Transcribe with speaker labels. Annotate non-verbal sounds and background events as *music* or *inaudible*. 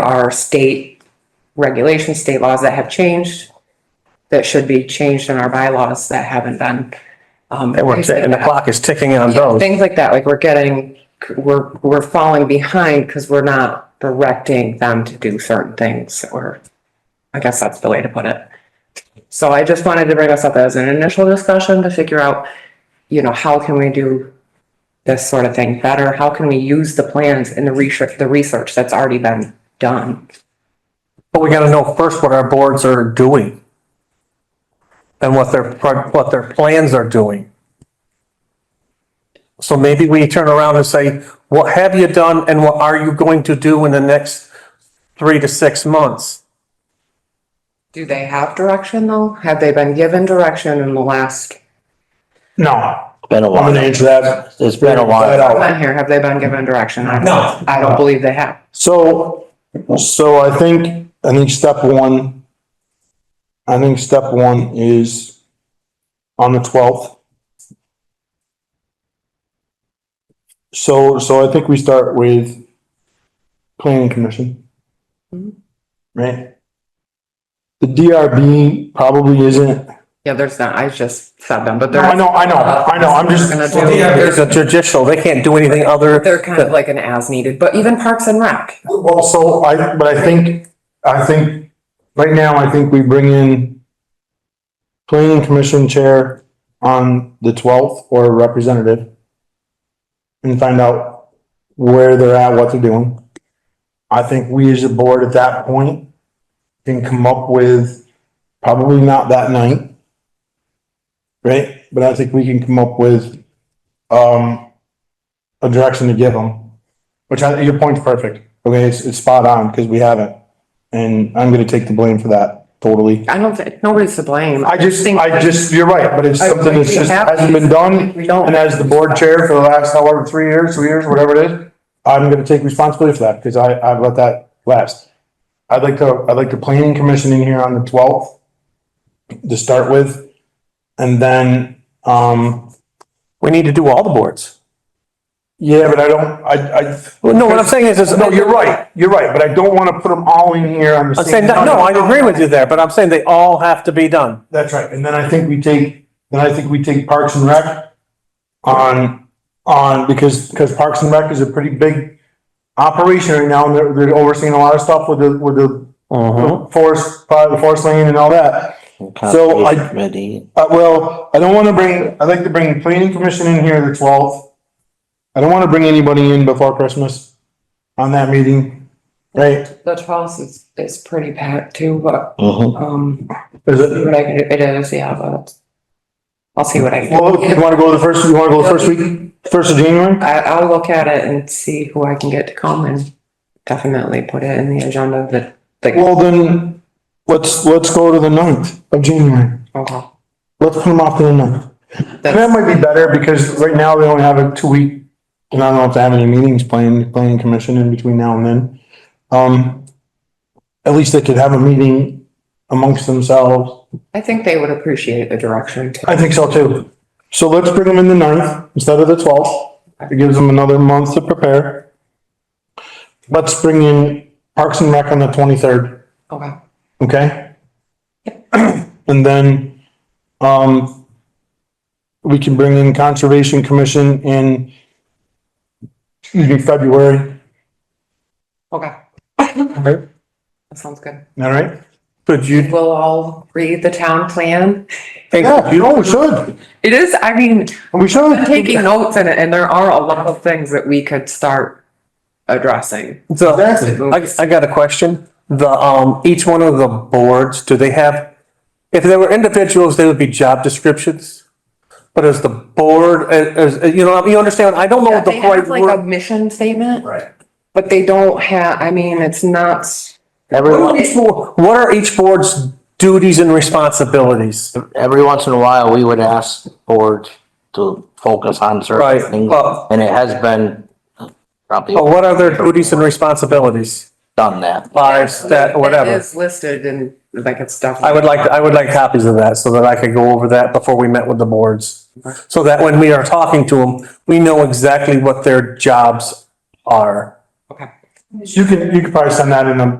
Speaker 1: are state regulations, state laws that have changed, that should be changed in our bylaws that haven't been. Um,
Speaker 2: And we're,
Speaker 1: things like
Speaker 2: and the
Speaker 1: that.
Speaker 2: clock is ticking on
Speaker 1: Yeah,
Speaker 2: those.
Speaker 1: Things like that, like we're getting, we're, we're falling behind because we're not directing them to do certain things or I guess that's the way to put it. So I just wanted to bring us up as an initial discussion to figure out, you know, how can we do this sort of thing better? How can we use the plans and the research, the research that's already been done?
Speaker 2: But we gotta know first what our boards are doing. And what their, pro- what their plans are doing. So maybe we turn around and say, what have you done and what are you going to do in the next three to six months?
Speaker 1: Do they have direction though? Have they been given direction in the last,
Speaker 3: No.
Speaker 4: Been a
Speaker 3: I'm
Speaker 4: while.
Speaker 3: gonna answer that.
Speaker 4: It's been a
Speaker 3: Right
Speaker 4: while.
Speaker 3: out.
Speaker 1: on here, have they been given direction? I don't-
Speaker 3: No.
Speaker 1: I don't believe they have.
Speaker 3: So, so I think, I think step one, I think step one is on the twelfth. So, so I think we start with planning commission. Mm-hmm.
Speaker 1: Mhm.
Speaker 3: Right? The DRB probably isn't,
Speaker 1: Yeah, there's not, I just said them, but
Speaker 3: No, I
Speaker 1: they're,
Speaker 3: know, I know, I know, I'm just,
Speaker 1: Gonna do-
Speaker 3: Well, yeah,
Speaker 2: It's a judicial, they can't do anything other.
Speaker 1: they're kind of like an as needed, but even Parks and Rec.
Speaker 3: Well, so I, but I think, I think, right now, I think we bring in planning commission chair on the twelfth or a representative and find out where they're at, what they're doing. I think we as a board at that point can come up with, probably not that night. Right? But I think we can come up with, um, a direction to give them. Which I, your point's perfect. Okay, it's, it's spot on because we haven't. And I'm gonna take the blame for that totally.
Speaker 1: I don't think, nobody's to blame.
Speaker 3: I just,
Speaker 1: think
Speaker 3: I just, you're right, but it's
Speaker 1: I-
Speaker 3: something that's
Speaker 1: we
Speaker 3: just
Speaker 1: have-
Speaker 3: hasn't been done.
Speaker 1: We don't.
Speaker 3: And as the board chair for the last however, three years, two years, whatever it is, I'm gonna take responsibility for that because I, I've let that last. I'd like to, I'd like the planning commission in here on the twelfth to start with. And then, um,
Speaker 2: We need to do all the boards.
Speaker 3: yeah, but I don't, I, I,
Speaker 2: Well, no, what I'm saying is, is.
Speaker 3: no, you're right, you're right, but I don't wanna put them all in here on the
Speaker 2: I'm
Speaker 3: same.
Speaker 2: saying, that- no, I agree with you there, but I'm saying they all have to be done.
Speaker 3: That's right, and then I think we take, then I think we take Parks and Rec on, on, because, because Parks and Rec is a pretty big operation right now, and they're, they're overseeing a lot of stuff with the, with the
Speaker 2: Mm-hmm.
Speaker 3: forest, uh, the forest lane and all that. So I-
Speaker 4: Committee.
Speaker 3: Uh, well, I don't wanna bring, I'd like to bring the planning commission in here the twelfth. I don't wanna bring anybody in before Christmas on that meeting, right?
Speaker 1: The twelfth is, is pretty packed too, but,
Speaker 4: Mhm.
Speaker 1: um,
Speaker 3: Is
Speaker 1: see
Speaker 3: it,
Speaker 1: what I can do, it is, yeah, but I'll see what I can.
Speaker 3: well, you wanna go the first, you wanna go the first week, first of January?
Speaker 1: I, I'll look at it and see who I can get to come and definitely put it in the agenda that, like,
Speaker 3: Well, then, let's, let's go to the ninth of January.
Speaker 1: okay.
Speaker 3: Let's put them off to the ninth. And that
Speaker 1: That's-
Speaker 3: might be better because right now they only have a two week, and I don't know if they have any meetings planned, planning commission in between now and then. Um, at least they could have a meeting amongst themselves.
Speaker 1: I think they would appreciate the direction. too.
Speaker 3: I think so too. So let's bring them in the ninth instead of the twelfth. It gives them another month to prepare. Let's bring in Parks and Rec on the twenty-third.
Speaker 1: Okay,
Speaker 3: Okay? And then, um, we can bring in Conservation Commission in, excuse me, February,
Speaker 1: okay, *laughs*
Speaker 3: all
Speaker 1: that sounds good.
Speaker 3: right?
Speaker 2: Could you,
Speaker 1: We'll all read the town plan.
Speaker 3: Yeah, you know, we should,
Speaker 1: It is, I mean,
Speaker 3: we
Speaker 1: I'm
Speaker 3: should.
Speaker 1: taking notes and, and there are a lot of things that we could start addressing.
Speaker 2: so,
Speaker 3: Exactly.
Speaker 2: I, I got a question. The, um, each one of the boards, do they have, if they were individuals, they would be job descriptions? But as the board, uh, as, as- you know, you understand, I don't know what Oh, the
Speaker 1: They have
Speaker 2: right
Speaker 1: like a
Speaker 2: word.
Speaker 1: mission statement,
Speaker 3: Right.
Speaker 1: but they don't have, I mean, it's not, s-
Speaker 2: What
Speaker 4: Every,
Speaker 2: are each bo- what are each board's duties and responsibilities?
Speaker 4: every once in a while, we would ask board to focus on
Speaker 2: Right,
Speaker 4: certain things,
Speaker 2: but,
Speaker 4: and it has been probably
Speaker 3: oh,
Speaker 2: but what are their duties and responsibilities?
Speaker 4: done that.
Speaker 2: Lives, that,
Speaker 1: It
Speaker 2: whatever.
Speaker 1: is listed and like it's stuff.
Speaker 2: I would like, I would like copies of that so that I could go over that before we met with the boards. So that when we are talking to them, we know exactly what their jobs are.
Speaker 3: You can, you could probably send that in a